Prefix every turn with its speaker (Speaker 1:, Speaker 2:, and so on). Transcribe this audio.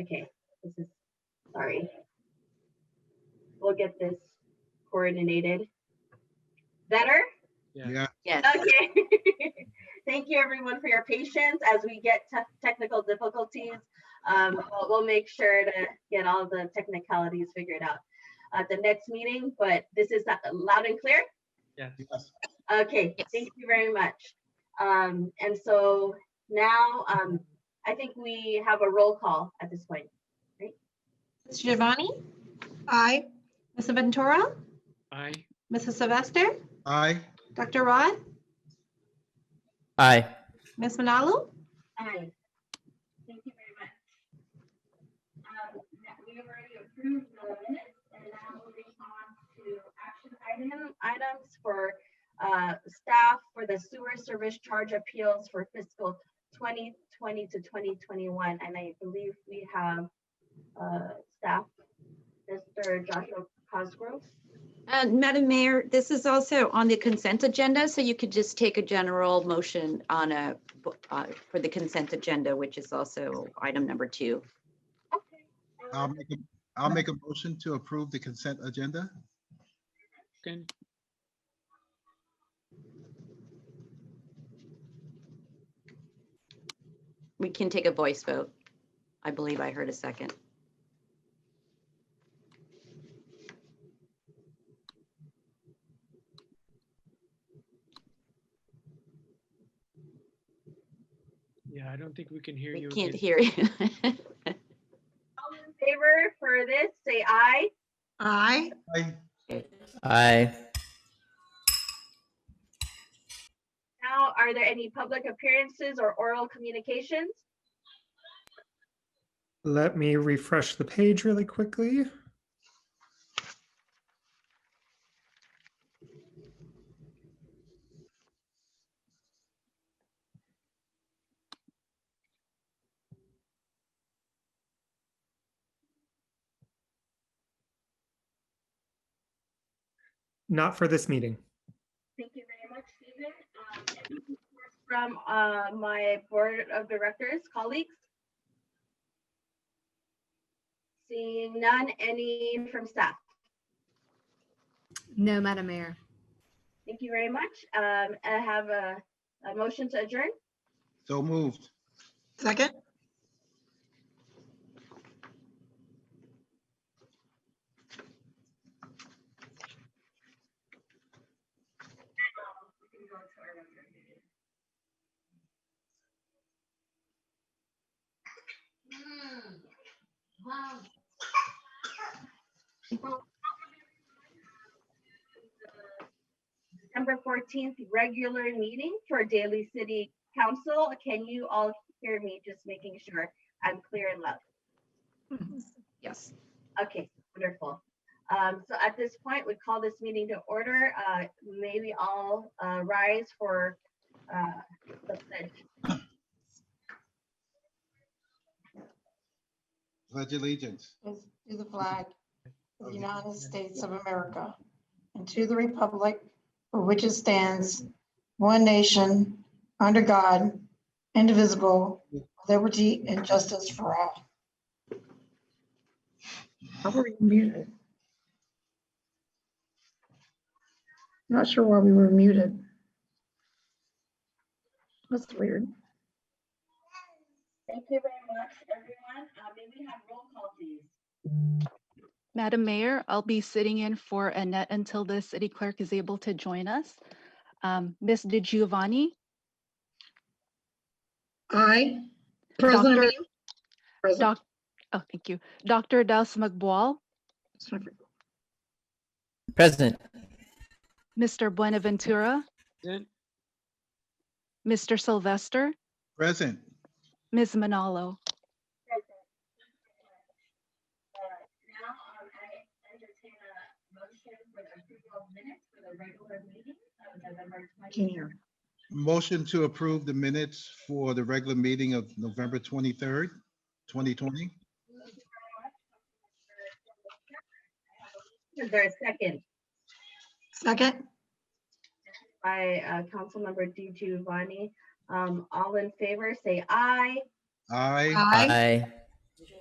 Speaker 1: Okay, this is, sorry. We'll get this coordinated. Better?
Speaker 2: Yeah.
Speaker 3: Yeah,
Speaker 4: Yes.
Speaker 1: Okay. Thank you, everyone, for your patience as we get te- technical difficulties. Um, we'll- We'll make sure to get all the technicalities figured out at the next meeting, but this is not- loud and clear?
Speaker 2: Yes.
Speaker 3: yes,
Speaker 1: Okay,
Speaker 4: Yes.
Speaker 1: thank you very much. Um, And so now, um, I think we have a roll call at this point.
Speaker 5: Mr. Giovanni,
Speaker 6: Aye.
Speaker 5: Mrs. Ventura,
Speaker 2: I.
Speaker 5: Mrs. Sylvester,
Speaker 3: aye.
Speaker 5: Dr. Rod,
Speaker 7: Aye.
Speaker 5: Ms. Manalu,
Speaker 1: Aye. Thank you very much. Um, that- We have already approved the minutes and now moving on to action item, items for uh, staff for the sewer service charge appeals for fiscal 2020 to 2021. And I believe we have uh, staff, Mr. Joshua Cosgrove.
Speaker 4: Uh, Madam Mayor, this is also on the consent agenda, so you could just take a general motion on a, uh, for the consent agenda, which is also item number two.
Speaker 1: Okay.
Speaker 3: I'll make, a- I'll make a motion to approve the consent agenda.
Speaker 2: Can,
Speaker 4: We can take a voice vote. I believe I heard a second.
Speaker 2: yeah, I don't think we can hear
Speaker 4: We
Speaker 2: you.
Speaker 4: can't
Speaker 2: again.
Speaker 4: hear you.
Speaker 1: All in favor for this, say aye.
Speaker 6: Aye.
Speaker 3: Aye.
Speaker 7: Aye.
Speaker 1: Now, are there any public appearances or oral communications?
Speaker 8: Let me refresh the page really quickly. Not for this meeting.
Speaker 1: Thank you very much, Stephen. Um, and of course, From uh, my board of directors, colleagues? Seeing none, any from staff?
Speaker 6: No, Madam Mayor.
Speaker 1: Thank you very much. Um, I have a, a motion to adjourn.
Speaker 3: So moved.
Speaker 6: Second?
Speaker 1: December fourteenth, regular meeting for Daily City Council. Can you all hear me? Just making sure I'm clear and loud.
Speaker 4: Yes.
Speaker 1: Okay, wonderful. Um, so at this point, we call this meeting to order. Uh, may we all, uh, rise for, uh, the pledge.
Speaker 3: Pledge allegiance.
Speaker 5: is to the flag
Speaker 3: of
Speaker 5: of the
Speaker 3: the
Speaker 5: United States of America and to the republic for which it stands, one nation, under God, indivisible, with liberty and justice for all.
Speaker 6: How were you muted? Not sure why we were muted. That's weird.
Speaker 1: Thank you very much, everyone. Uh, may we have roll call, please?
Speaker 9: Madam Mayor, I'll be sitting in for Annette until the city clerk is able to join us. Um, Ms. De Giovanni,
Speaker 6: Aye. President.
Speaker 9: Doctor-
Speaker 6: are you? Present.
Speaker 9: Doc, oh, thank you. Dr. Douse McBall,
Speaker 7: Present.
Speaker 9: Mr. Buenaventura,
Speaker 2: Then,
Speaker 9: Mr. Sylvester,
Speaker 3: Present.
Speaker 9: Ms. Manalo.
Speaker 1: Uh, Now, um, I entertain a motion for the approval of minutes for the regular meeting of November
Speaker 6: Can't
Speaker 1: twenty.
Speaker 6: hear.
Speaker 3: Motion to approve the minutes for the regular meeting of November twenty-third, twenty twenty.
Speaker 1: Is there a second
Speaker 6: Second?
Speaker 1: by, uh, Councilmember D Giovanni? Um, all in favor, say aye.
Speaker 3: Aye.
Speaker 6: Aye.
Speaker 7: Aye.